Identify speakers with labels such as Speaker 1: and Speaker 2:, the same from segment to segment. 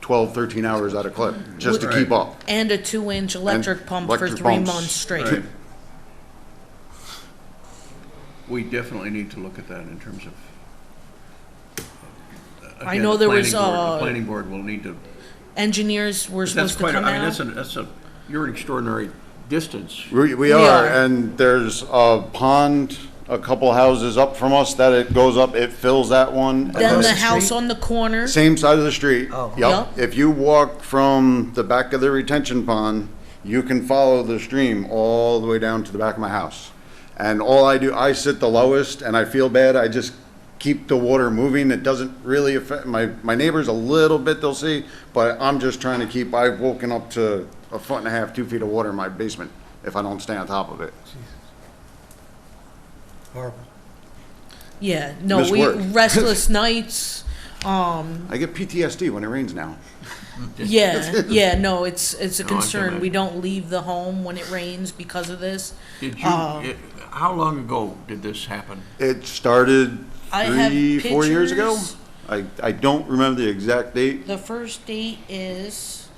Speaker 1: 12, 13 hours out of clip, just to keep up.
Speaker 2: And a two-inch electric pump for
Speaker 1: electric
Speaker 2: three
Speaker 1: pumps.
Speaker 2: months straight.
Speaker 3: Right. We definitely need to look at that in terms of. uh,
Speaker 2: I
Speaker 3: Again,
Speaker 2: know
Speaker 3: the
Speaker 2: there was,
Speaker 3: planning board-
Speaker 2: uh,
Speaker 3: The planning board will need to,
Speaker 2: Engineers were
Speaker 3: that's
Speaker 2: supposed to
Speaker 3: quite, a-
Speaker 2: come
Speaker 3: I mean, that's
Speaker 2: out.
Speaker 3: an, that's a, you're an extraordinary distance.
Speaker 1: We, we are,
Speaker 2: are.
Speaker 1: and there's a pond a couple houses up from us that it goes up, it fills that one. and
Speaker 2: Then
Speaker 1: it-
Speaker 2: the house on the corner,
Speaker 1: Same side of the street.
Speaker 4: Oh.
Speaker 1: Yep.
Speaker 2: Yep.
Speaker 1: If you walk from the back of the retention pond, you can follow the stream all the way down to the back of my house. And all I do, I sit the lowest and I feel bad. I just keep the water moving. It doesn't really affect my, my neighbors a little bit, they'll see, but I'm just trying to keep, I've woken up to a foot and a half, two feet of water in my basement if I don't stay on top of it.
Speaker 4: Horrible.
Speaker 2: yeah, no,
Speaker 1: Miss
Speaker 2: we,
Speaker 1: work.
Speaker 2: restless nights, um,
Speaker 1: I get PTSD when it rains now.
Speaker 2: yeah, yeah, no, it's, it's a
Speaker 3: No, I can
Speaker 2: concern. We don't leave the home when it rains because of this.
Speaker 3: Did you,
Speaker 2: um,
Speaker 3: it- how long ago did this happen?
Speaker 1: It started
Speaker 2: I have
Speaker 1: three, four years ago.
Speaker 2: pictures.
Speaker 1: I, I don't remember the exact date.
Speaker 2: The first date is,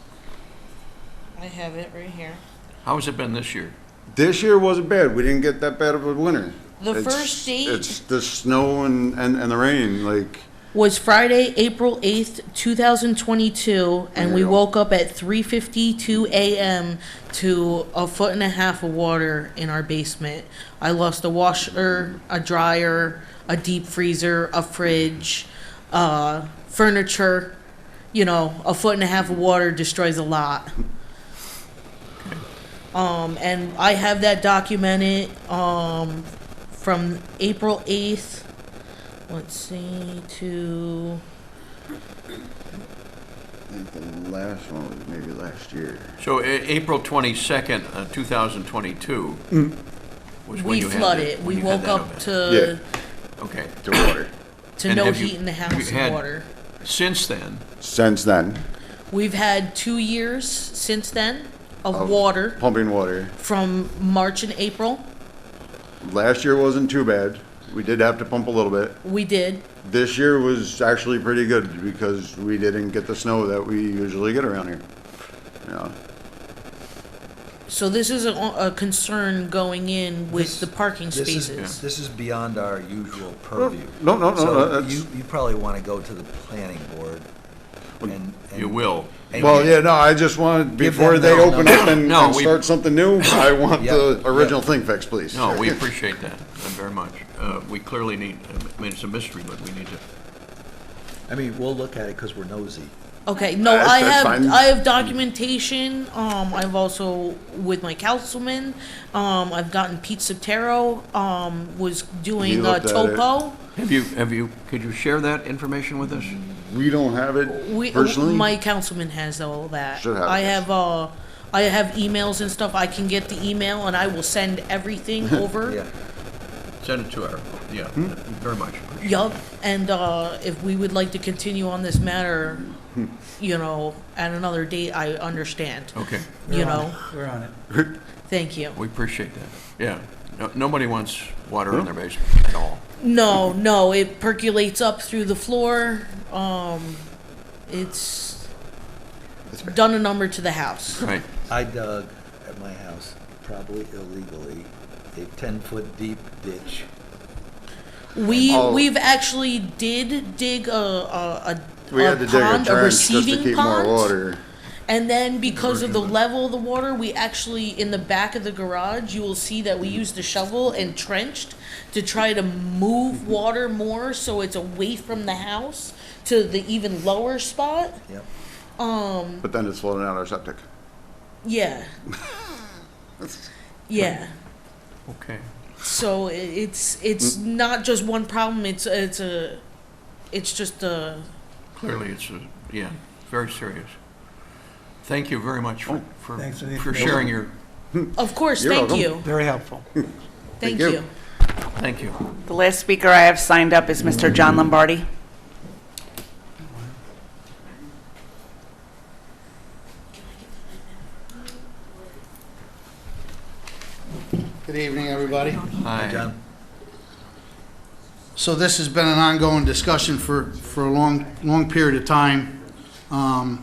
Speaker 2: I have it right here.
Speaker 3: How has it been this year?
Speaker 1: This year wasn't bad. We didn't get that bad of a winter.
Speaker 2: The
Speaker 1: It's-
Speaker 2: first date-
Speaker 1: It's the snow and, and, and the rain, like,
Speaker 2: was Friday, April 8th, 2022, and we
Speaker 1: Yeah.
Speaker 2: woke up at 3:52 a.m. to a foot and a half of water in our basement. I lost a washer, a dryer, a deep freezer, a fridge, uh, furniture. You know, a foot and a half of water destroys a lot. Um, and I have that documented um, from April 8th Let's see, to,
Speaker 1: I think the last one was maybe last year.
Speaker 3: So A- April twenty-second, uh, two thousand twenty-two was when
Speaker 2: Mm. we
Speaker 3: you had that-
Speaker 2: flooded,
Speaker 3: when
Speaker 2: we
Speaker 3: you had
Speaker 2: woke
Speaker 3: that
Speaker 2: up
Speaker 3: event.
Speaker 2: to,
Speaker 3: Okay.
Speaker 1: The water.
Speaker 2: to
Speaker 3: And
Speaker 2: no
Speaker 3: have you-
Speaker 2: heat in the
Speaker 3: you
Speaker 2: house
Speaker 3: had-
Speaker 2: and water.
Speaker 3: Since then,
Speaker 1: Since then,
Speaker 2: We've had two years since then of water
Speaker 1: pumping water.
Speaker 2: from March and April.
Speaker 1: Last year wasn't too bad. We did have to pump a little bit.
Speaker 2: We did.
Speaker 1: This year was actually pretty good because we didn't get the snow that we usually get around here. Yeah.
Speaker 2: So this is a, a concern going in with
Speaker 4: This-
Speaker 2: the parking
Speaker 4: This is,
Speaker 2: spaces.
Speaker 4: this is beyond our usual purview.
Speaker 1: No, no, no,
Speaker 4: So
Speaker 1: no, that's-
Speaker 4: You, you probably want to go to the planning board and. and-
Speaker 3: you will.
Speaker 4: and
Speaker 1: Well,
Speaker 4: give-
Speaker 1: yeah, no, I just wanted,
Speaker 4: Give
Speaker 1: before
Speaker 4: them
Speaker 1: they
Speaker 4: their own
Speaker 1: open
Speaker 4: number.
Speaker 1: up and,
Speaker 3: No,
Speaker 1: and
Speaker 3: we-
Speaker 1: start something new, I want
Speaker 4: Yeah,
Speaker 1: the
Speaker 4: yeah.
Speaker 1: original thing fixed, please.
Speaker 3: No, we appreciate that uh, very much. Uh, We clearly need, I mean, it's a mystery, but we need to,
Speaker 4: I mean, we'll look at it because we're nosy.
Speaker 2: Okay, no,
Speaker 1: That's-
Speaker 2: I
Speaker 1: that's
Speaker 2: have,
Speaker 1: fine.
Speaker 2: I have documentation, um, I've also, with my councilman, um, I've gotten Pete Sotero, um, was
Speaker 1: He
Speaker 2: doing a
Speaker 1: looked at it.
Speaker 2: topo.
Speaker 3: have you, have you, could you share that information with us?
Speaker 1: We don't have it
Speaker 2: We,
Speaker 1: personally.
Speaker 2: my councilman has all that.
Speaker 1: Should have,
Speaker 2: I
Speaker 1: yes.
Speaker 2: have, uh, I have emails and stuff. I can get the email and I will send everything
Speaker 4: Yeah.
Speaker 2: over.
Speaker 3: Send it to our, yeah, very much. appreciate it.
Speaker 2: Yup, and, uh, if we would like to continue on this matter, you know, at another date, I understand,
Speaker 1: Oh.
Speaker 3: Okay,
Speaker 2: you know?
Speaker 5: We're on it.
Speaker 2: Thank you.
Speaker 3: we appreciate that. Yeah, No- nobody wants water in their basement at all.
Speaker 2: No, no, it percolates up through the floor. Um, it's done a number to the house.
Speaker 3: Right,
Speaker 4: I dug at my house, probably illegally, a ten-foot deep ditch.
Speaker 2: We
Speaker 1: Oh.
Speaker 2: we've actually did dig a a, a,
Speaker 1: We
Speaker 2: a
Speaker 1: had to dig a
Speaker 2: pond, a,
Speaker 1: trench just to
Speaker 2: receiving
Speaker 1: keep
Speaker 2: pond,
Speaker 1: more water. Mm-hmm.
Speaker 2: and then because of the level of the water, we actually in the back of the garage, you will see that
Speaker 1: Mm-hmm.
Speaker 2: we used a shovel and trenched to try to
Speaker 1: Mm-hmm.
Speaker 2: move water more so it's away from the house to the even lower spot.
Speaker 4: Yep.
Speaker 1: But then it's flooding out our septic.
Speaker 2: Yeah. yeah.
Speaker 3: okay.
Speaker 2: So i- it's it's
Speaker 1: Mm.
Speaker 2: not just one problem. It's it's a it's just a
Speaker 3: Clearly, it's, a- yeah, very serious. Thank you very much for, for
Speaker 5: Thanks for the
Speaker 3: for
Speaker 5: information.
Speaker 3: sharing your,
Speaker 2: of course.
Speaker 1: You're
Speaker 2: thank
Speaker 1: welcome.
Speaker 2: you.
Speaker 5: Very helpful.
Speaker 2: Thank,
Speaker 1: Thank you.
Speaker 2: you.
Speaker 3: thank you.
Speaker 6: The last speaker I have signed up is Mr. John Lombardi.
Speaker 7: Good evening, everybody.
Speaker 3: Hi.
Speaker 4: John?
Speaker 7: So this has been an ongoing discussion for, for a long, long period of time. Um,